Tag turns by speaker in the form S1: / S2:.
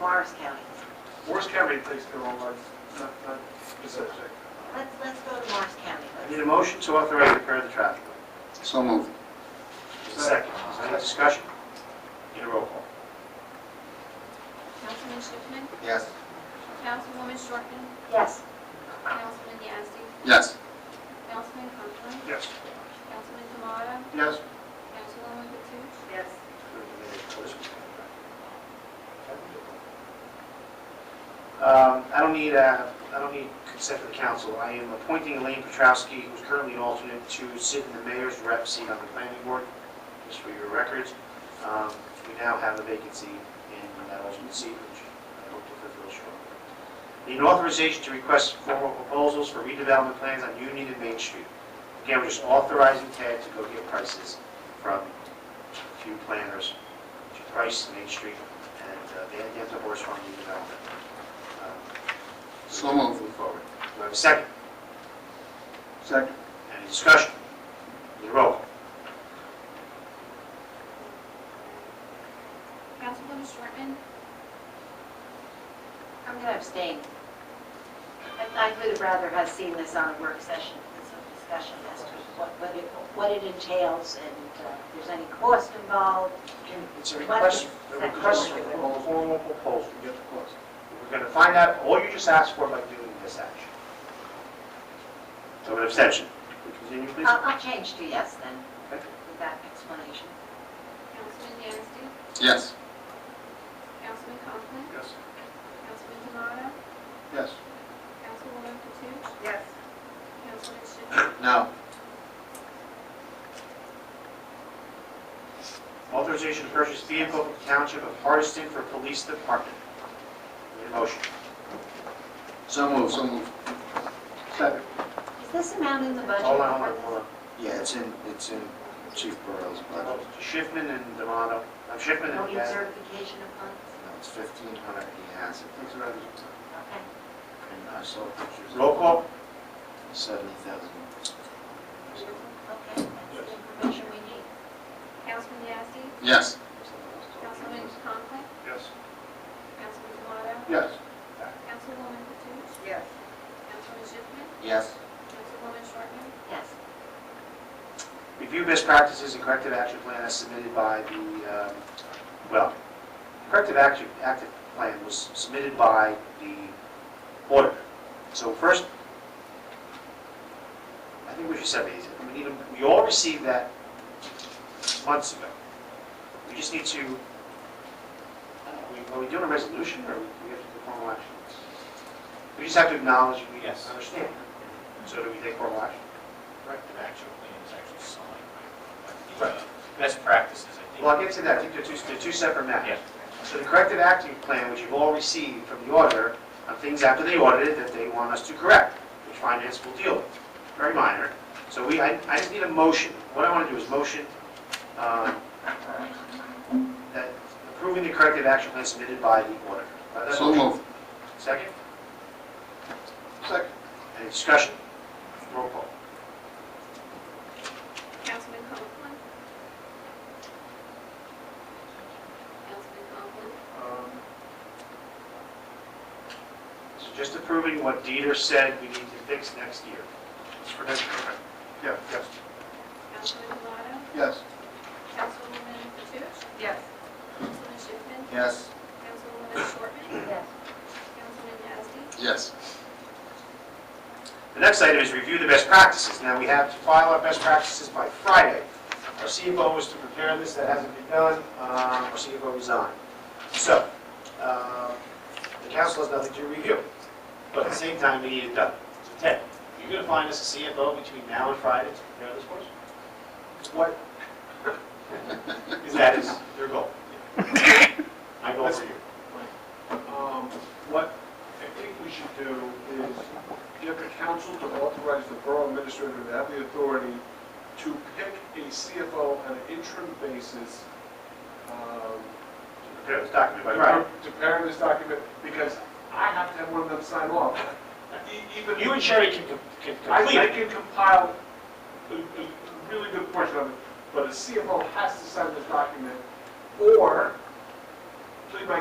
S1: Morris County.
S2: Morris County takes their own life, not, not the subject.
S1: Let's, let's go to Morris County.
S3: I
S1: Let's-
S3: need a motion to authorize repair of the traffic light.
S4: So moved.
S3: Second. Is there any discussion? Need a roll call.
S5: Councilman Schiffman,
S4: Yes.
S5: Councilwoman Shortman,
S1: Yes,
S5: Councilman Yasi,
S4: Yes.
S5: Councilman Conklin,
S2: Yes.
S5: Councilman Demotta,
S3: Yes.
S5: Councilwoman Toots,
S1: yes.
S3: Um, I don't need, uh, I don't need consent of the council. I am appointing Elaine Petrowski, who's currently an alternate, to sit in the mayor's rep seat on the planning board, just for your records. Um, We now have a vacancy in that alternate seat, which I hope to fulfill shortly. Need an authorization to request formal proposals for redevelopment plans on Union and Main Street. Again, we're just authorizing Ted to go get prices from a few planners to price Main Street, and uh, they had to have the horse farm redevelopment. Um,
S4: So moved. Move forward.
S3: Do I have a second?
S4: Second.
S3: Any discussion? Need a roll call?
S5: Councilwoman Shortman,
S1: I'm going to abstain. I, I would have rather have seen this on a work session, with some discussion as to what, what it, what it entails and uh, if there's any cost involved.
S3: It's a
S1: request-
S3: request,
S1: a
S3: a
S1: request
S3: request
S1: for
S3: for
S1: a
S3: formal proposal. You get the cost. We're going to find out all you just asked for by doing this action. So an abstention. Could we Continue, please.
S1: I'll, I'll change to yes then,
S3: Okay.
S1: with that explanation.
S5: Councilman Yasi,
S4: Yes.
S5: Councilman Conklin,
S2: Yes.
S5: Councilman Demotta,
S4: Yes.
S5: Councilwoman Toots,
S1: Yes.
S5: Councilman Schiffman,
S4: No.
S3: Authorization to purchase vehicle from the Township of Hardison for Police Department. Need a motion?
S4: So moved. So moved. Second.
S1: Is this amount in the budget?
S3: Hold on, hold on, hold on.
S4: Yeah, it's in, it's in Chief Burrow's
S3: Well,
S4: budget.
S3: Schiffman and Demoto, I'm Schiffman
S1: No
S3: and Gadd.
S1: decertification of funds?
S4: No, it's fifteen hundred. He has it.
S1: Okay.
S4: And I saw pictures.
S3: Roll call?
S4: Seventy thousand.
S1: Okay, that's the information we need.
S5: Councilman Yasi,
S4: Yes.
S5: Councilman Conklin,
S2: Yes.
S5: Councilman Demotta,
S4: Yes.
S5: Councilwoman Toots,
S1: Yes.
S5: Councilman Schiffman,
S4: Yes.
S5: Councilwoman Shortman,
S1: Yes.
S3: Review best practices and corrective action plan as submitted by the, um, well, corrective action, active plan was submitted by the auditor. So first, I think we should separate these. We need, to- we all received that months ago. We just need to, uh, we- are we doing a resolution or we have to do formal action? We just have to acknowledge we
S6: Yes.
S3: understand. So do we take formal action?
S6: corrective action plan is actually signed, right? But the, uh, Best practices, I think.
S3: Well, I'll get to that, I think they're two, they're two separate
S6: Yeah.
S3: matters. So the corrective action plan, which you've all received from the auditor, on things after they audited that they want us to correct, which finance will deal with, very minor. So we, I, I just need a motion, what I want to do is motion, um, that approving the corrective action plan submitted by the auditor. By that
S4: So
S3: motion.
S4: moved.
S3: Second,
S4: Second.
S3: any discussion? Roll call.
S5: Councilman Conklin. Councilman Conklin,
S3: Um, So just approving what Dieter said we need to fix next year.
S2: It's for next year, right? Yeah, yes.
S5: Councilman Demotta,
S4: Yes.
S5: Councilwoman Toots,
S1: Yes.
S5: Councilman Schiffman,
S4: Yes.
S5: Councilwoman Shortman,
S1: Yes.
S5: Councilman Yasi,
S4: Yes.
S3: The next item is review the best practices. Now, we have to file our best practices by Friday. Our CFO was to prepare this, that hasn't been done, Um, our CFO resigned. So, um, the council has nothing to review, but at the same time, we need it done. So Ted, you're going to find us a CFO between now and Friday to prepare this for us? What? Because that is your goal. My goal for you.
S2: Um, What I think we should do is get the council to authorize the borough administrator to have the authority to pick a CFO on an interim basis. um,
S3: Prepare this document by
S2: to
S3: Friday.
S2: pre- To prepare this document, because I have to have one of them sign off. E- Even
S3: You and Sherry can can
S2: I
S3: complete
S2: I
S3: it.
S2: can compile a a really good portion of it, but a CFO has to sign this document, or plead my